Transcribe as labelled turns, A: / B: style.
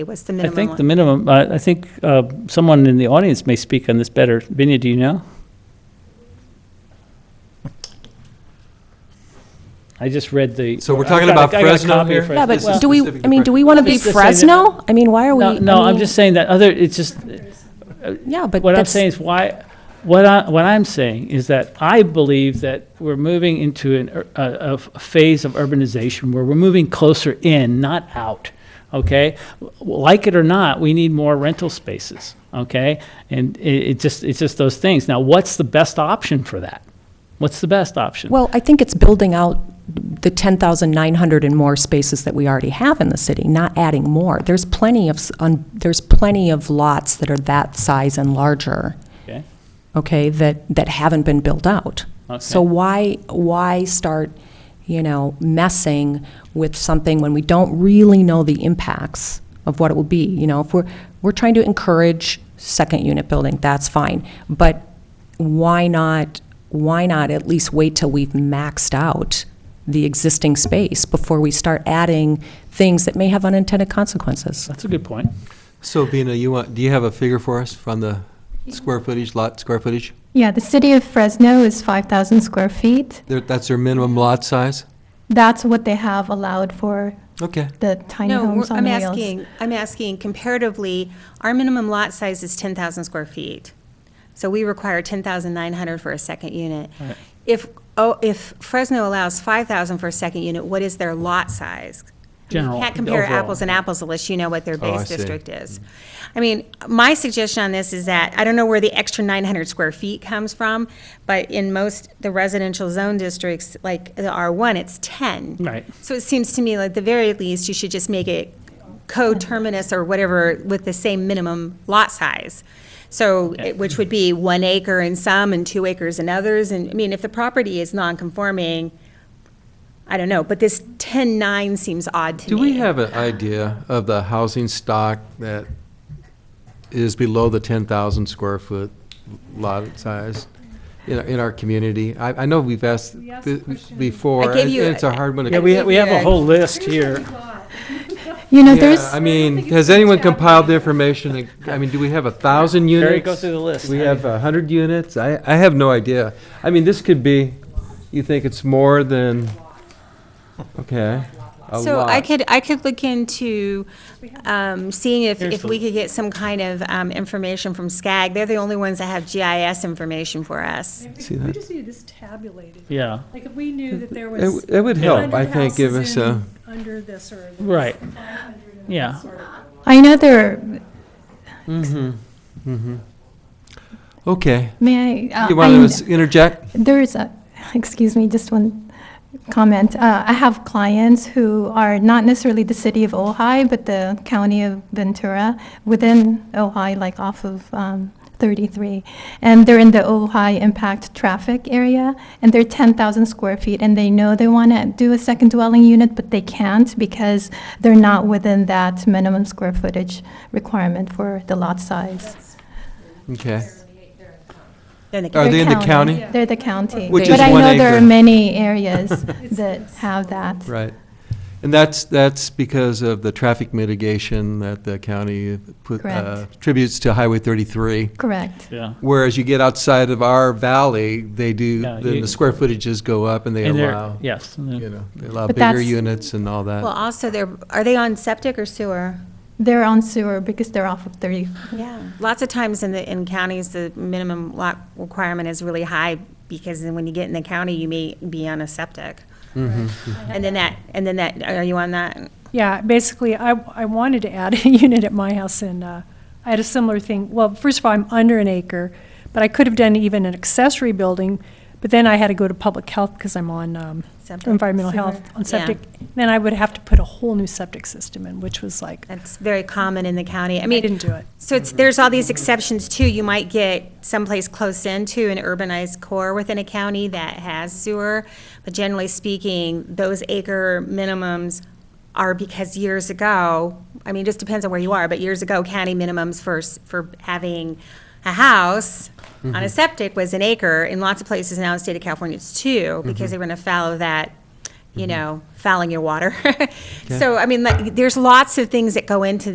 A: What's the
B: I
A: minimum?
B: think
A: one?
B: the minimum, I I think uh, someone in the audience may speak on this better. Vinny, do you know? I just read the.
C: So we're
B: I've
C: talking
B: got a-
C: about
B: I got a
C: Fresno
B: copy of
C: here?
B: Fresno.
D: Yeah,
C: This is
D: but do we,
C: specific
D: I mean,
C: to
D: do we want to be
B: Just to say that-
D: Fresno? I mean, why are we?
B: No, no,
D: I
B: I'm
D: mean,
B: just saying that other, it's just,
D: Yeah, but
B: what I'm
D: that's,
B: saying is why, what I, what I'm saying is that I believe that we're moving into an, ur- a, a f- phase of urbanization where we're moving closer in, not out, okay? W- Like it or not, we need more rental spaces, okay? And it, it just, it's just those things. Now, what's the best option for that? What's the best option?
D: well, I think it's building out the 10,900 and more spaces that we already have in the city, not adding more. There's plenty of, s- un- there's plenty of lots that are that size and larger,
B: Okay?
D: okay, that, that haven't been built out. So
B: Okay.
D: why, why start, you know, messing with something when we don't really know the impacts of what it will be? You know, if we're, we're trying to encourage second unit building, that's fine. But why not, why not at least wait till we've maxed out the existing space before we start adding things that may have unintended consequences?
B: That's a good point.
C: So Vina, you want, do you have a figure for us from the square footage, lot square footage?
E: Yeah, the city of Fresno is 5,000 square feet.
C: There- That's their minimum lot size?
E: That's what they have allowed for
C: Okay.
E: the tiny
A: No, we're-
E: homes on
A: I'm
E: wheels.
A: asking, I'm asking comparatively, our minimum lot size is 10,000 square feet. So we require 10,900 for a second unit.
B: Right.
A: If, oh, if Fresno allows 5,000 for a second unit, what is their lot size? I mean,
B: General,
A: You can't compare
B: overall.
A: apples and apples unless you know what their
C: Oh, I
A: base
C: see.
A: district is. I mean, my suggestion on this is that, I don't know where the extra 900 square feet comes from, but in most, the residential zone districts, like the R1, it's 10.
B: Right.
A: So it seems to me like the very least, you should just make it co-terminus or whatever with the same minimum lot size. So, it- which would be one acre in some and two acres in others, and, I mean, if the property is non-conforming, I don't know, but this 10-9 seems odd to me.
C: Do we have an idea of the housing stock that is below the 10,000 square foot lot size in, our- in our community? I, I know we've asked th- before,
A: I gave
C: and
A: you-
C: and it's a hard one to.
B: Yeah, we, ha- we have a
A: Yeah.
B: whole list here.
E: You know,
C: Yeah,
E: there's,
C: I mean, has anyone compiled the information? I mean, do we have a 1,000 units?
B: Jerry, go through the list.
C: We have a 100 units? I, I have no idea. I mean, this could be, you think it's more than, okay, a lot.
A: So I could, I could look into um, seeing if,
B: Here's
A: if
B: the-
A: we could get some kind of um, information from SCAG. They're the only ones that have GIS information for us.
F: If
C: See
F: We
C: that?
F: just need this tabulated.
B: Yeah,
F: Like if we knew that there
C: It
F: was.
C: w- it would help,
F: 100
C: I think, give
F: houses
C: us uh, a,
F: in Under this or. there was
B: Right.
F: 500 and
B: Yeah.
F: sort of-
E: I know there,
C: okay.
E: may I? uh,
C: You
E: I-
C: want to interject?
E: There's, a- excuse me, just one comment. Uh, I have clients who are not necessarily the city of Ojai, but the county of Ventura, within Ojai, like off of um, 33. And they're in the Ojai impact traffic area, and they're 10,000 square feet, and they know they want to do a second dwelling unit, but they can't because they're not within that minimum square footage requirement for the lot size.
C: Okay.
A: Then they
C: Are
E: They're
C: they in the county?
E: They're the county.
C: Which
E: But
C: is
E: I
C: one
E: know there
C: acre.
E: are many areas that have that.
C: Right. And that's, that's because of the traffic mitigation that the county put, uh,
E: Correct.
C: tributes to Highway 33.
E: Correct.
B: yeah.
C: Whereas you get outside of our valley, they do,
B: Yeah,
C: then
B: you-
C: the square footages go up and they
B: And they're-
C: allow,
B: Yes. and they're-
C: you know, they allow
E: But
C: bigger
E: that's-
C: units and all
A: Well,
C: that.
A: also, they're, are they on septic or sewer?
E: They're on sewer because they're off of 30.
A: Yeah. Lots of times in the, in counties, the minimum lot requirement is really high, because then when you get in the county, you may be on a septic. And then that, and then that, are you on that?
F: Yeah, basically, I, I wanted to add a unit at my house and, uh, I had a similar thing. Well, first of all, I'm under an acre, but I could have done even an accessory building, but then I had to go to public health because I'm on, um,
A: Septic.
F: environmental health,
A: Sewer.
F: on
A: Yeah.
F: septic. Then I would have to put a whole new septic system in, which was like, I
A: That's very common in the county. I mean,
F: didn't do it.
A: So it's, there's all these exceptions too. You might get someplace close into an urbanized core within a county that has sewer. But generally speaking, those acre minimums are because years ago, I mean, it just depends on where you are, but years ago, county minimums for, s- for having a house on a septic was an acre. In lots of places now in the state of California, it's two, because they were gonna follow that you know, fouling your water. So, I mean, like, there's lots of things that go into